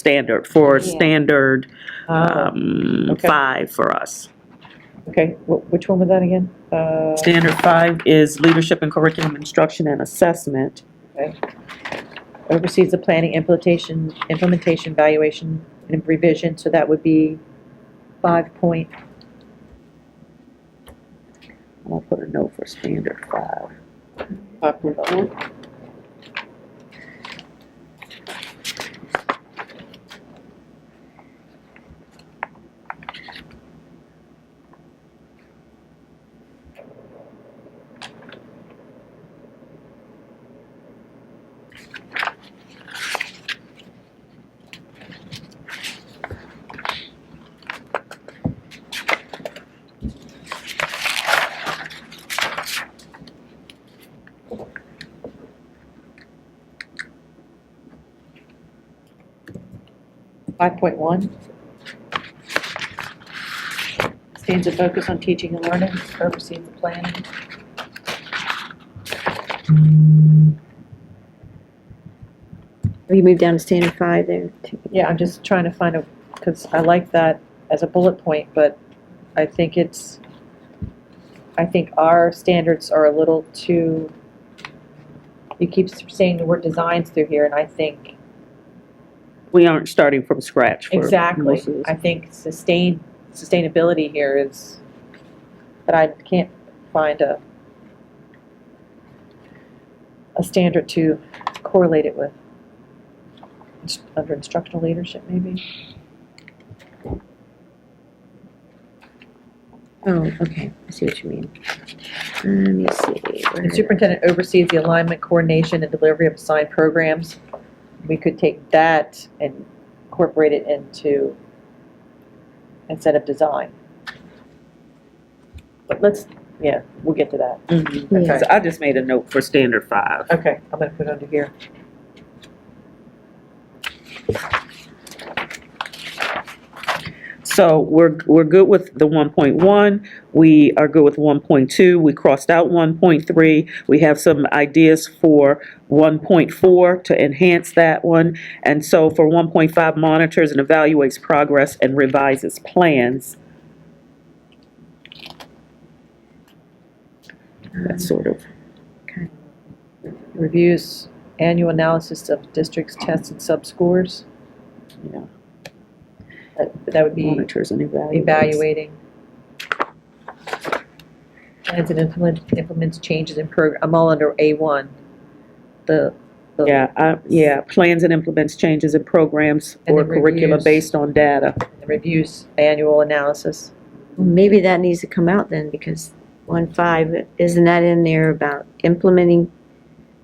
standard, for Yeah. standard Ah, um, okay. five for us. okay, Wh- which one was that again? Uh, Standard five is leadership and curriculum instruction and assessment. oversees the planning, implementation, implementation, valuation, and revision, so that would be five point, I'll put a note for standard five. five point oh. Five point one. Stands to focus on teaching and learning, oversees the planning. You moved down to standard five there. too. Yeah, I'm just trying to find a, because I like that as a bullet point, but I think it's, I think our standards are a little too, you keep saying the word designs through here, and I think, We aren't starting from scratch for exactly, most of this. I think sustain, sustainability here is, but I can't find a, a standard to correlate it with. Inst- Under instructional leadership, maybe? Oh, okay, I see what you mean. Let me see. where The did I- superintendent oversees the alignment, coordination, and delivery of assigned programs. We could take that and incorporate it into incentive design. But let's, yeah, we'll get to that. Mhm. Yeah. So I just made a note for standard five. Okay, I'm gonna put it under here. So we're, we're good with the 1.1, we are good with 1.2, we crossed out 1.3, we have some ideas for 1.4 to enhance that one, and so for 1.5, monitors and evaluates progress and revises plans. That's sort of, Reviews annual analysis of districts' tests and sub-scores. Yeah. That- That would be monitors and evaluates. evaluating. Plans and implement, implements changes in program, I'm all under A1. The, the. Yeah, I- yeah, plans and implements changes in programs And or then curricula reviews. based on data. the Reviews annual analysis. Maybe that needs to come out then, because one five, isn't that in there about implementing?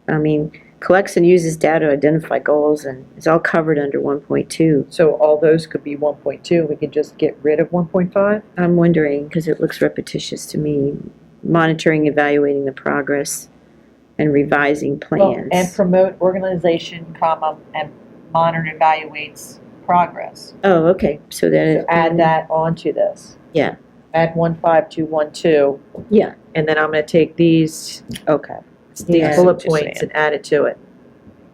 I mean, collects and uses data to identify goals, and it's all covered under one point two. So all those could be 1.2, we could just get rid of 1.5? I'm wondering, because it looks repetitious to me, monitoring, evaluating the progress, and revising plans. And promote organization, comma, and monitor evaluates progress. Oh, okay, so then. So Add that onto this. Yeah. Add 1.5 to 1.2, Yeah, and then I'm going to take these, okay, Yeah. these bullet What you're points and add it to it.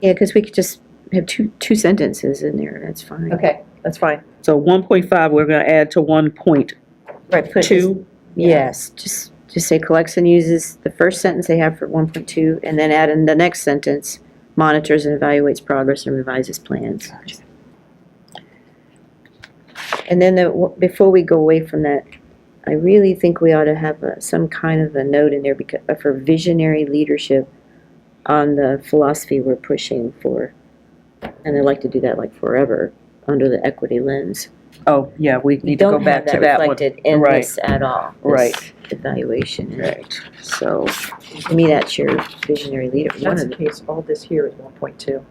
yeah, because we could just have two, two sentences in there, that's fine. Okay, that's fine. So 1.5, we're going to add to 1.2. Right, put- Yes, just, just say collects and uses the first sentence they have for one point two, and then add in the next sentence, monitors and evaluates progress and revises plans. And then the, before we go away from that, I really think we ought to have uh, some kind of a note in there because, uh, for visionary leadership on the philosophy we're pushing for. And I'd like to do that like forever, under the equity lens. Oh, yeah, we We need to go don't back have to that that one. reflected in Right. this at all. this Right. Evaluation. Right. So, to me, that's your visionary leader, one That's of the them. case, all this here is 1.2.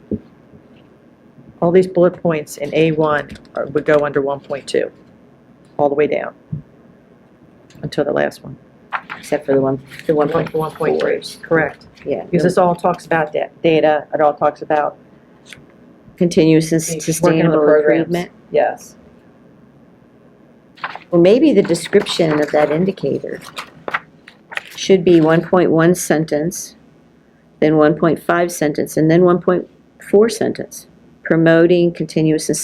All these bullet points in A1 are- would go under 1.2, all the way down, until the last one. except for the one, the one point, 1.3. Correct. yeah. Because this all talks about da- data, it all talks about, Continuous and Working on the sustainable programs. improvement. yes. Well, maybe the description of that indicator should be one point one sentence, then one point five sentence, and then one point four sentence. Promoting continuous and